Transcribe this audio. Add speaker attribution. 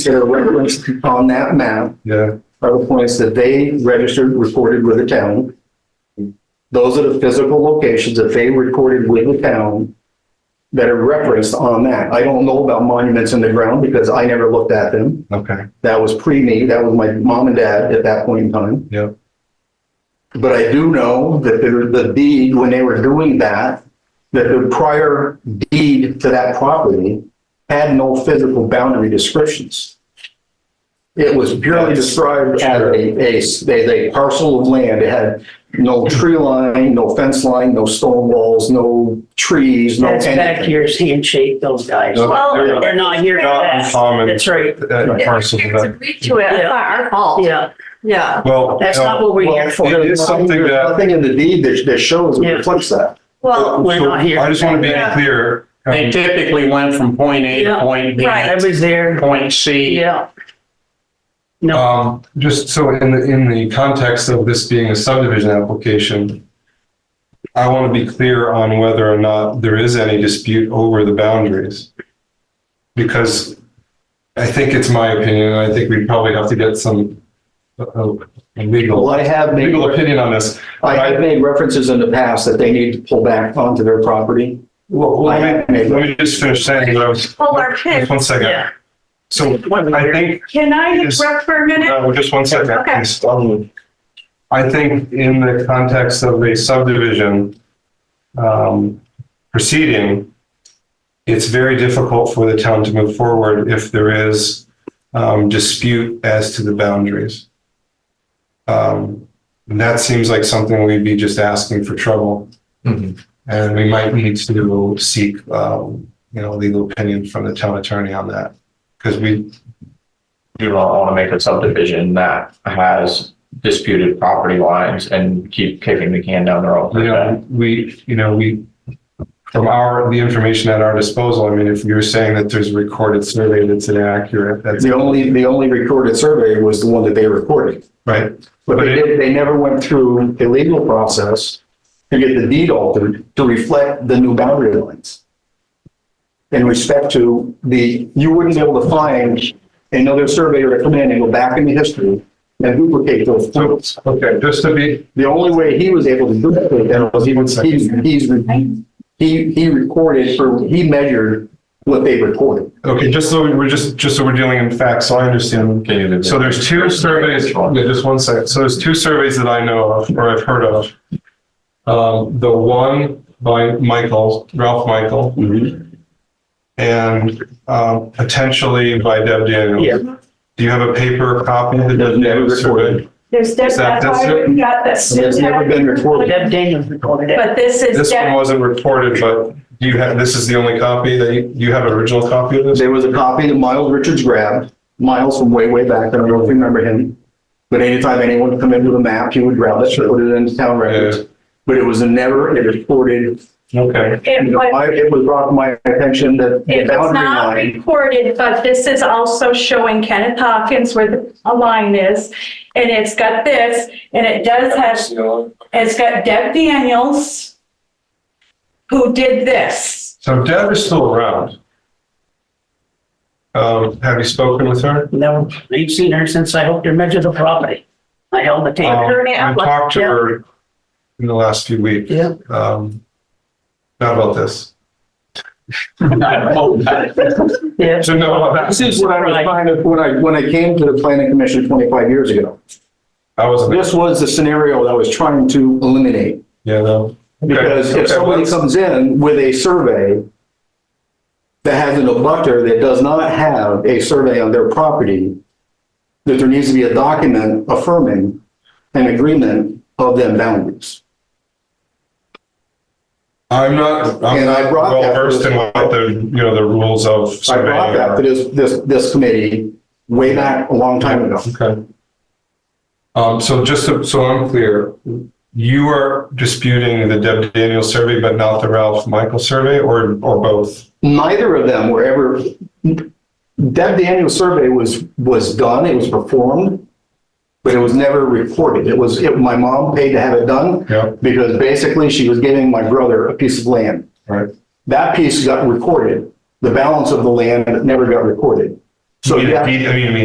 Speaker 1: to reference on that map
Speaker 2: Yeah,
Speaker 1: are the points that they registered, recorded with the town. Those are the physical locations that they recorded with the town that are referenced on that. I don't know about monuments in the ground because I never looked at them.
Speaker 2: okay,
Speaker 1: That was pre me, that was my mom and dad at that point in time.
Speaker 2: yeah,
Speaker 1: But I do know that there, the deed, when they were doing that, that the prior deed to that property had no physical boundary descriptions. It was purely described as a, a, s- a- a parcel of land. It had no tree line, no fence line, no stone walls, no trees, no
Speaker 3: That's back
Speaker 1: anything.
Speaker 3: year's handshake, those guys.
Speaker 2: No,
Speaker 4: Well-
Speaker 2: they're not-
Speaker 3: They're not here for
Speaker 2: Not
Speaker 3: that.
Speaker 2: uncommon,
Speaker 3: That's right.
Speaker 2: uh, parcels of
Speaker 4: Parents
Speaker 2: that.
Speaker 4: agreed to it, it's not our fault,
Speaker 3: Yeah,
Speaker 4: yeah.
Speaker 2: Well, uh,
Speaker 3: that's
Speaker 2: no,
Speaker 3: not what we're here for.
Speaker 2: It is something
Speaker 1: There's
Speaker 2: that-
Speaker 1: Nothing in the deed that, that shows or
Speaker 3: Yeah.
Speaker 1: reflects that.
Speaker 4: Well,
Speaker 3: We're
Speaker 2: so
Speaker 3: not here.
Speaker 2: I just want to be clear.
Speaker 5: They
Speaker 2: um,
Speaker 5: typically went from point A to
Speaker 3: Yeah,
Speaker 5: point B,
Speaker 3: I
Speaker 4: right.
Speaker 3: was there.
Speaker 5: point C.
Speaker 3: Yeah. No,
Speaker 2: Um, just so in the, in the context of this being a subdivision application, I want to be clear on whether or not there is any dispute over the boundaries. Because I think it's my opinion, and I think we probably have to get some uh, uh,
Speaker 1: Well,
Speaker 2: legal,
Speaker 1: I have made.
Speaker 2: legal opinion on this.
Speaker 1: I have made references in the past that they need to pull back onto their property.
Speaker 2: Well, let me, let me just finish saying what I was,
Speaker 4: Hold our pin.
Speaker 2: just one second.
Speaker 3: yeah.
Speaker 2: So Uh, I think,
Speaker 4: Can I
Speaker 2: Yes.
Speaker 4: interrupt for a minute?
Speaker 2: no, just one second.
Speaker 4: Okay.
Speaker 2: please. Um, I think in the context of a subdivision, um, proceeding, it's very difficult for the town to move forward if there is, um, dispute as to the boundaries. Um, and that seems like something we'd be just asking for trouble.
Speaker 6: Mm-hmm.
Speaker 2: And we might need to seek, um, you know, legal opinion from the town attorney on that. Because we,
Speaker 6: do not want to make a subdivision that has disputed property lines and keep kicking the can down the road.
Speaker 2: you know, we, you know, we, from our, the information at our disposal, I mean, if you're saying that there's a recorded survey that's inaccurate, that's
Speaker 1: The only, the only recorded survey was the one that they recorded.
Speaker 2: right.
Speaker 1: But they did, they never went through a legal process to get the deed altered to reflect the new boundary lines. In respect to the, you wouldn't be able to find another surveyor to come in and go back into history and duplicate those photos.
Speaker 2: Okay, just to be,
Speaker 1: The only way he was able to do that was he was, he, he's, he, he recorded or he measured what they recorded.
Speaker 2: okay, just so we're just, just so we're dealing in facts, so I understand. So there's two surveys, yeah, just one second. So there's two surveys that I know of, or I've heard of. Um, the one by Michael, Ralph Michael, and, um, potentially by Deb Daniels.
Speaker 3: Yeah.
Speaker 2: Do you have a paper copy of the
Speaker 1: That's
Speaker 2: Deb
Speaker 1: never
Speaker 2: Daniels survey?
Speaker 1: recorded.
Speaker 4: There's,
Speaker 2: Is
Speaker 4: that's
Speaker 2: that- that's
Speaker 4: why
Speaker 2: it?
Speaker 4: we got this.
Speaker 1: It's never been recorded.
Speaker 3: Deb Daniels recorded it.
Speaker 4: But this is,
Speaker 2: This one
Speaker 4: def-
Speaker 2: wasn't reported, but do you have, this is the only copy that you, you have an original copy of this?
Speaker 1: There was a copy that Miles Richards grabbed, Miles from way, way back, I don't know if you remember him. But anytime anyone would come in with a map, he would grab it, put it into town records. But it was never, it recorded,
Speaker 2: Okay.
Speaker 4: it was,
Speaker 1: I- it was brought to my attention that the
Speaker 4: it was
Speaker 1: boundary
Speaker 4: not
Speaker 1: line.
Speaker 4: recorded, but this is also showing Kenneth Hawkins where the a line is. And it's got this, and it does have, it's got Deb Daniels who did this.
Speaker 2: So Deb is still around. Um, have you spoken with her?
Speaker 3: No, I've seen her since I helped her measure the property. I held the
Speaker 2: Um,
Speaker 3: tape.
Speaker 2: I talked to her in the last few weeks.
Speaker 3: Yeah.
Speaker 2: Um, not about this.
Speaker 3: Yeah.
Speaker 2: So no, about
Speaker 1: This
Speaker 2: that.
Speaker 1: is what I was trying to, when I, when I came to the planning commission twenty-five years ago.
Speaker 2: I wasn't,
Speaker 1: This was the scenario that I was trying to eliminate.
Speaker 2: yeah, no. Okay,
Speaker 1: Because if
Speaker 2: okay,
Speaker 1: somebody
Speaker 2: let's-
Speaker 1: comes in with a survey that has an abutter that does not have a survey on their property, that there needs to be a document affirming an agreement of them boundaries.
Speaker 2: I'm not, I'm
Speaker 1: And I
Speaker 2: not
Speaker 1: brought that-
Speaker 2: well versed in what the, you know, the rules
Speaker 1: I
Speaker 2: of surveying.
Speaker 1: brought that to this, this, this committee way back a long time ago.
Speaker 2: Okay. Um, so just so, so I'm clear, you are disputing the Deb Daniels survey, but not the Ralph Michael survey or, or both?
Speaker 1: Neither of them were ever, that the annual survey was, was done, it was performed, but it was never reported. It was, it- my mom paid to have it done.
Speaker 2: Yep.
Speaker 1: because basically she was giving my brother a piece of land.
Speaker 2: Right.
Speaker 1: That piece got recorded. The balance of the land never got recorded. So
Speaker 2: I mean,
Speaker 1: yeah.
Speaker 2: I mean,